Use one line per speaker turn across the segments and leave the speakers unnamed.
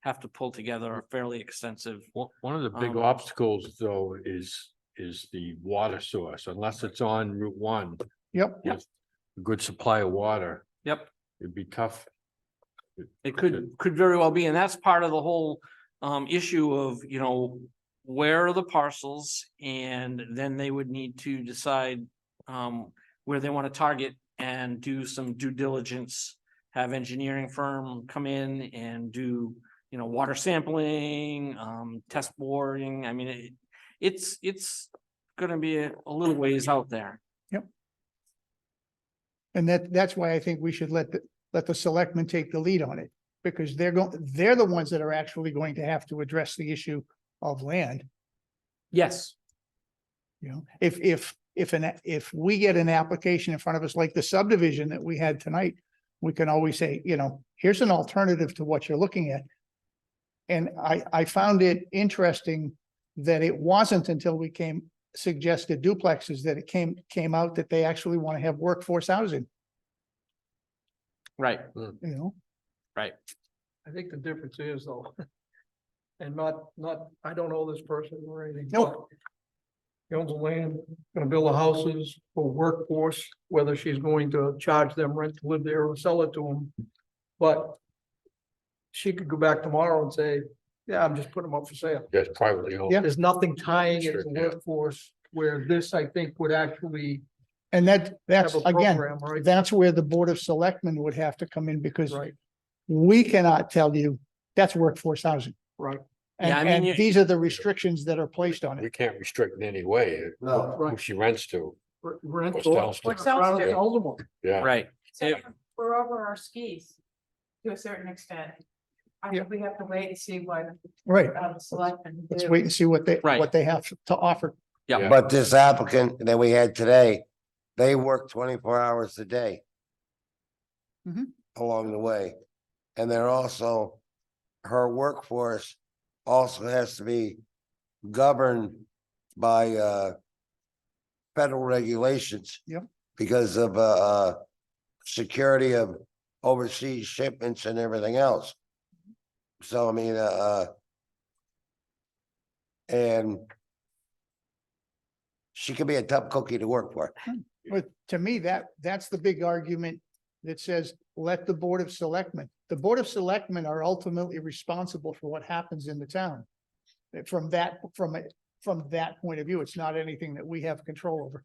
have to pull together a fairly extensive.
One, one of the big
Um,
obstacles though is, is the water source, unless it's on Route One.
Yep.
Yep.
with a Good supply of water,
Yep,
it'd be tough.
it could, could very well be, and that's part of the whole um issue of, you know, where are the parcels? And then they would need to decide um where they want to target and do some due diligence. Have engineering firm come in and do, you know, water sampling, um, test boring, I mean, it, it's, it's gonna be a a little ways out there.
And that, that's why I think we should let, the let the selectmen take the lead on it. Because they're going, they're the ones that are actually going to have to address the issue of land,
Yes.
you know? If, if, if an, if we get an application in front of us like the subdivision that we had tonight, we can always say, you know, here's an alternative to what you're looking at. And I, I found it interesting that it wasn't until we came, suggested duplexes that it came, came out that they actually want to have workforce housing,
Right,
you know?
I think the difference is though. And not, not, I don't know this person or anything.
No.
but He owns the land, gonna build the houses for workforce, whether she's going to charge them rent to live there or sell it to them. But. She could go back tomorrow and say, yeah, I'm just putting them up for sale.
Yes, privately owned.
Yeah.
There's nothing tying it to
Sure, yeah.
workforce where this, I think, would actually
And that, that's
have a
again,
program, right?
that's where the Board of Selectmen would have to come in because
Right,
we cannot tell you that's workforce housing.
right.
Yeah, I
And,
mean, you-
and these are the restrictions that are placed on
We
it.
can't restrict in any way uh, who
Right.
she rents to,
R- Rent.
What's
or-
downstairs?
What's downstairs?
Sells them all.
yeah.
right.
So
Yeah.
we're over our skis to a certain extent. I
Yeah.
think we have to wait and see what
Right.
uh, the selectmen
Let's
do.
wait and see what they,
Right.
what they have to offer.
Yeah.
But this applicant that we had today, they work twenty-four hours a day.
Mhm.
Along the way. And they're also, her workforce also has to be governed by uh. Federal regulations.
Yep.
Because of uh, uh, security of overseas shipments and everything else. So I mean, uh, uh. And she could be a tough cookie to work for.
But to me, that, that's the big argument that says, let the Board of Selectmen, the Board of Selectmen are ultimately responsible for what happens in the town. From that, from, a- from that point of view, it's not anything that we have control over.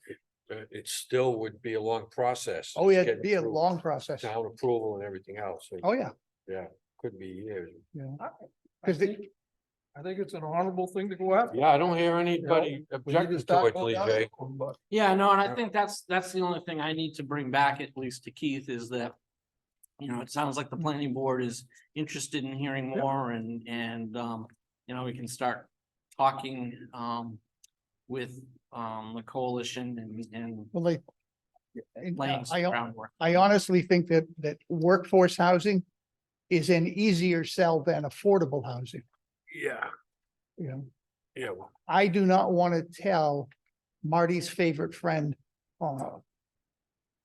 Uh, It still would be a long process.
Oh, yeah,
Just
it'd
getting
be a
through
long process.
Town approval and everything else, so
Oh,
it
yeah.
could be years.
I
Because
think- I think it's an honorable thing to go after.
Yeah, I don't hear anybody
We need to
objecting to
start
it,
going
Lee
down
Jay.
that road, But
Yeah, no, and I
Yeah.
think that's, that's the only thing I need to bring back, at least to Keith, is that. You know, it sounds like the planning board is interested in hearing
Yeah.
more and, and, um, you know, we can start talking, um. With, um, the coalition and, and
Well, like. and
laying
I,
some groundwork.
I honestly think that, that workforce housing is an easier sell than affordable housing,
Yeah,
you know?
yeah, well,
I do not want to tell Marty's favorite friend, uh,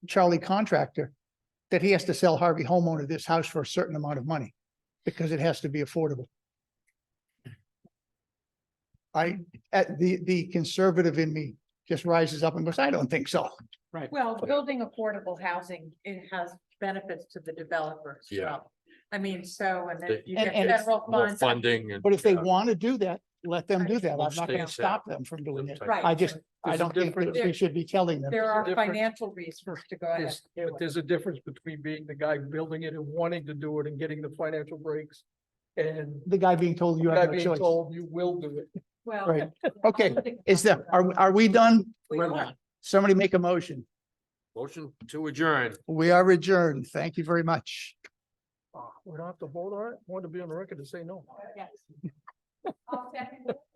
Charlie Contractor, that he has to sell Harvey homeowner this house for a certain amount of money because it has to be affordable. I, at the, the conservative in me just rises up and goes, I don't think so.
Well, building affordable housing, it has benefits to the developers.
Yeah.
I mean, so, and then
The-
you
And-
get
and it's
federal
more
funds.
funding and.
But if they
yeah,
want to do that, let them do that. I'm not going to
States have
stop them from doing
those
it.
types
Right.
I just, I
There's a
don't think that
difference.
we should be telling them.
There are
difference.
financial reasons to go ahead.
there's, but there's a difference between being the guy building it and wanting to do it and getting the financial breaks. And
The guy being told you
guy
have no
being
choice.
told you will do it.
Well.
Right.
I
Okay,
don't think
is
that's
there, are, are we done?
we
We're
want.
not-
Somebody make a motion.
Motion to adjourn.
We are adjourned. Thank you very much.
Ah, We don't have to vote on it. Want to be on the record to say no.
Yes. I'll second it.